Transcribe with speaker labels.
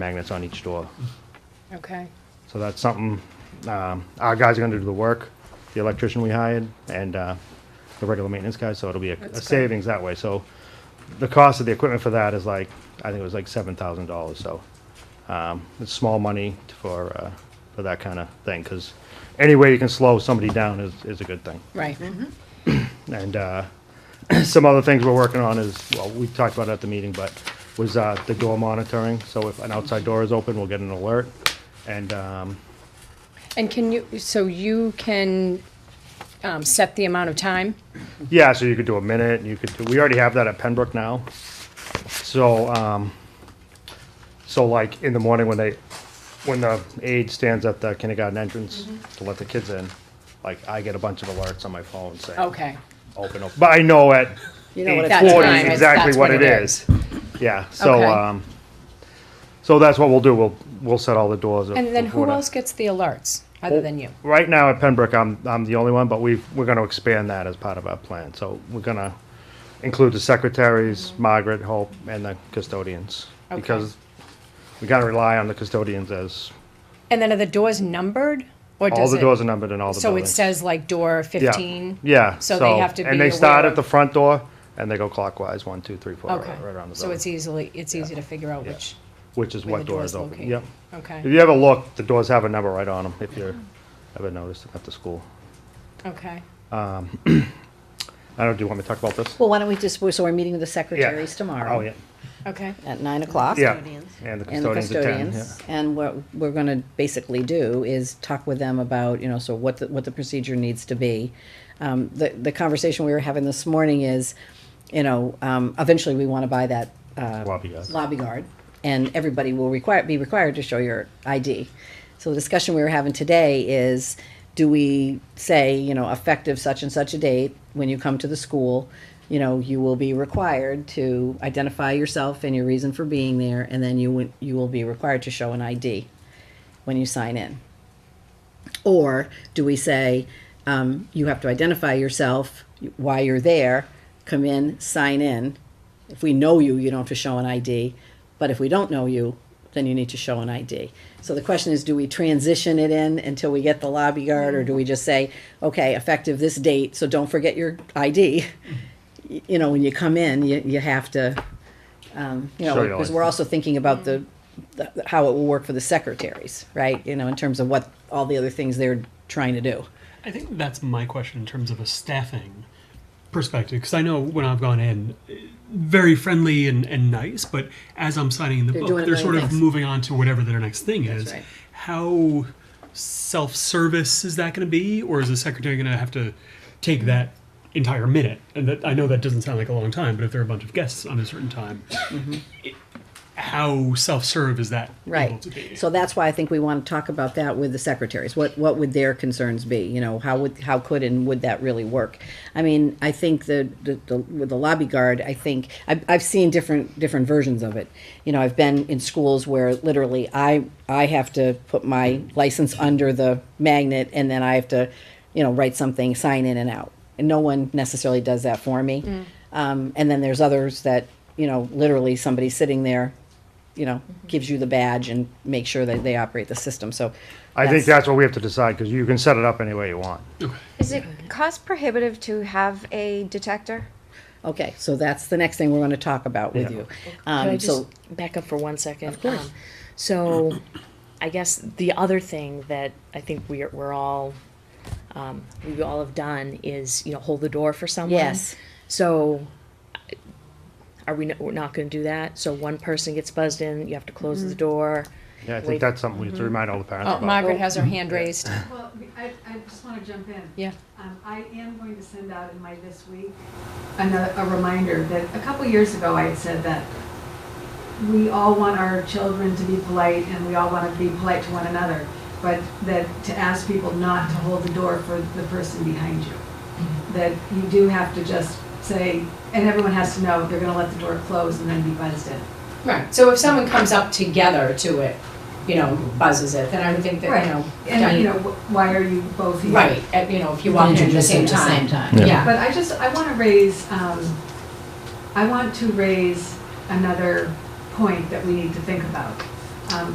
Speaker 1: magnets on each door.
Speaker 2: Okay,
Speaker 1: So that's something, um, our guys are gonna do the work, the electrician we hired, and, uh, the regular maintenance guys, so it'll be a,
Speaker 2: That's
Speaker 1: a
Speaker 2: good.
Speaker 1: savings that way, so. The cost of the equipment for that is like, I think it was like seven thousand dollars, so, um, it's small money for, uh, for that kinda thing, cause any way you can slow somebody down is, is a good thing.
Speaker 2: right.
Speaker 1: And uh, some other things we're working on is, well, we talked about it at the meeting, but was uh, the door monitoring. So if an outside door is open, we'll get an alert. And um,
Speaker 2: And can you, so you can um, set the amount of time?
Speaker 1: yeah, so you could do a minute, you could do, we already have that at Pembroke now. So, um, so like in the morning when they, when the aide stands at the kindergarten entrance to let the kids in, like I get a bunch of alerts on my phone saying.
Speaker 2: Okay.
Speaker 1: Open, open. But I know at
Speaker 3: You know what
Speaker 2: That
Speaker 3: it's
Speaker 2: time,
Speaker 3: for.
Speaker 1: 40
Speaker 2: That's
Speaker 1: is exactly what it is. Yeah, so,
Speaker 2: Okay.
Speaker 1: um, so that's what we'll do, we'll, we'll set all the doors. of-
Speaker 2: And then
Speaker 1: of
Speaker 2: who
Speaker 1: what I-
Speaker 2: else gets the alerts, other than you?
Speaker 1: Right now at Pembroke, I'm, I'm the only one, but we, we're gonna expand that as part of our plan, so we're gonna include the secretaries, Margaret, Hope, and the custodians.
Speaker 2: Okay.
Speaker 1: Because we gotta rely on the custodians as,
Speaker 2: And then are the doors numbered? or
Speaker 1: all
Speaker 2: does
Speaker 1: the
Speaker 2: it-
Speaker 1: doors are numbered in all the
Speaker 2: So it
Speaker 1: buildings.
Speaker 2: says like door
Speaker 1: Yeah,
Speaker 2: 15?
Speaker 1: Yeah.
Speaker 2: So they have to be
Speaker 1: And they start
Speaker 2: aware
Speaker 1: at
Speaker 2: of-
Speaker 1: the front door, and they go clockwise, one, two, three, four, right
Speaker 2: Okay,
Speaker 1: right around the building.
Speaker 2: so it's easily, it's easy to figure out which,
Speaker 1: Which is
Speaker 2: where the
Speaker 1: what door
Speaker 2: door's
Speaker 1: is open,
Speaker 2: located.
Speaker 1: yep. If
Speaker 2: Okay,
Speaker 1: you ever look, the doors have a number right on them, if you're, ever noticed at the school.
Speaker 2: okay.
Speaker 1: I don't, do you want me to talk about this?
Speaker 3: Well, why don't we just, so we're meeting with the
Speaker 1: Yeah.
Speaker 3: secretaries
Speaker 1: Oh,
Speaker 3: tomorrow
Speaker 1: yeah,
Speaker 2: Okay,
Speaker 3: at nine o'clock.
Speaker 1: yeah. And the
Speaker 3: And the
Speaker 1: custodians at ten, yeah.
Speaker 3: custodians. And what we're gonna basically do is talk with them about, you know, so what, the- what the procedure needs to be. Um, the, the conversation we were having this morning is, you know, um, eventually we wanna buy that, uh,
Speaker 1: Lobby guys.
Speaker 3: lobby guard, and everybody will require, be required to show your ID. So the discussion we were having today is, do we say, you know, effective such and such a date, when you come to the school, you know, you will be required to identify yourself and your reason for being there, and then you would, you will be required to show an ID when you sign in. Or do we say, um, you have to identify yourself, why you're there, come in, sign in. If we know you, you don't have to show an ID, but if we don't know you, then you need to show an ID. So the question is, do we transition it in until we get the lobby guard, or do we just say, okay, effective this date, so don't forget your ID? Y- You know, when you come in, you, you have to, um, you know,
Speaker 1: Show your
Speaker 3: because
Speaker 1: ID.
Speaker 3: we're also thinking about the, the- how it will work for the secretaries, right? You know, in terms of what, all the other things they're trying to do.
Speaker 4: I think that's my question in terms of a staffing perspective, because I know when I've gone in, eh, very friendly and, and nice, but as I'm signing the
Speaker 3: They're doing
Speaker 4: book,
Speaker 3: a million
Speaker 4: they're sort of
Speaker 3: things.
Speaker 4: moving on to whatever their next thing is.
Speaker 3: right.
Speaker 4: How self-service is that going to be, or is the secretary going to have to take that entire minute? And that I know that doesn't sound like a long time, but if there are a bunch of guests on a certain time, it- how self-serve is that able
Speaker 3: Mm-hmm. Right.
Speaker 4: to be?
Speaker 3: So that's why I think we want to talk about that with the secretaries. What, what would their concerns be? You know, how would, how could and would that really work? I mean, I think the, the, the- with the lobby guard, I think, I've, I've seen different, different versions of it. You know, I've been in schools where literally I, I have to put my license under the magnet and then I have to, you know, write something, sign in and out. And no one necessarily does that for me. Um, and then there's others that, you know, literally somebody's sitting there you know,
Speaker 5: Mm-hmm.
Speaker 3: gives you the badge and make sure that they operate the system, so.
Speaker 1: I think that's what we have to decide, because you can set it up any way you want.
Speaker 6: Is it cost prohibitive to have a detector?
Speaker 3: Okay, so that's the next thing we're gonna talk about with
Speaker 1: Yeah.
Speaker 3: you.
Speaker 5: Can I
Speaker 3: Um, so,
Speaker 5: just back up for one second? Of course. so, I guess the other thing that I think we're we're all um, we all have done is you know hold the door for someone.
Speaker 3: Yes.
Speaker 5: So, are we no, we're not going to do that? So one person gets buzzed in, you have to close
Speaker 3: Mm-hmm.
Speaker 5: the door.
Speaker 1: Yeah, I think
Speaker 5: Wait.
Speaker 1: that's something we have to remind all the parents
Speaker 2: Oh,
Speaker 1: about.
Speaker 2: Margaret has her hand raised.
Speaker 7: Well, I, I just want to jump in.
Speaker 2: Yeah.
Speaker 7: Um, I am going to send out in my this week another, a reminder that a couple years ago I had said that we all want our children to be polite and we all want to be polite to one another, but that to ask people not to hold the door for the person behind you.
Speaker 2: Mm-hmm.
Speaker 7: That you do have to just say, and everyone has to know, they're going to let the door close and then be buzzed in.
Speaker 2: Right, so if someone comes up together to it, you know, buzzes it, then I would think
Speaker 7: Right.
Speaker 2: that, you know.
Speaker 7: And, you
Speaker 2: done-
Speaker 7: know, wh- why are you both here?
Speaker 2: Right, at- you know, if you walk in at the same time.
Speaker 1: Yeah.
Speaker 2: Yeah,
Speaker 7: But I just, I want to raise, um, I want to raise another point that we need to think about. Um,